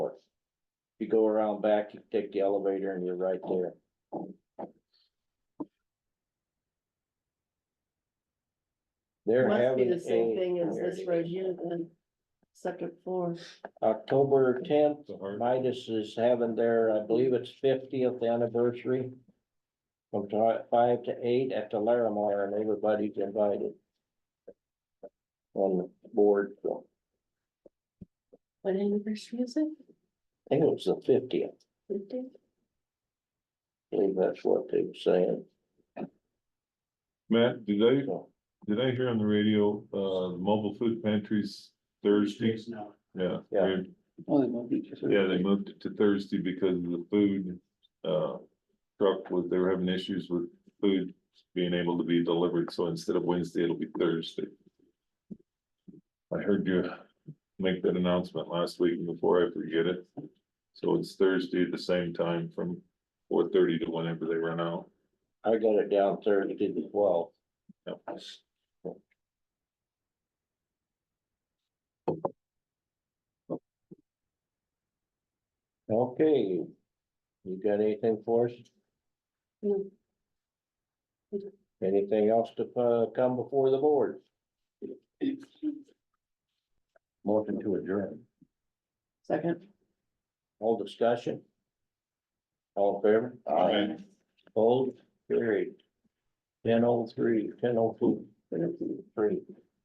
You go around back, you take the elevator and you're right there. They're Must be having the same a, thing as this road here, the second floor. October tenth, So hard. Midas is having their, I believe it's fiftieth anniversary. From ti- five to eight at the Larimar and everybody's invited. On the board, so What anniversary is it? I think it was the fiftieth, Fifty? I believe that's what they were saying, Matt, did I, so. did I hear on the radio, uh, the mobile food pantries Thursday? now. Yeah. Yeah. weird. Oh, they might be just- Yeah, they moved it to Thursday because of the food, uh, truck was, they were having issues with food being able to be delivered, so instead of Wednesday, it'll be Thursday. I heard you make that announcement last week and before I forget it. So it's Thursday at the same time from four thirty to whenever they run out. I got it down Thursday to twelve. Yep. Okay. You got anything for us? No. Anything else to uh come before the board? Motion to adjourn. Second. All discussion? All in favor? Aye. Hold, carried. Ten oh three, ten oh two, three.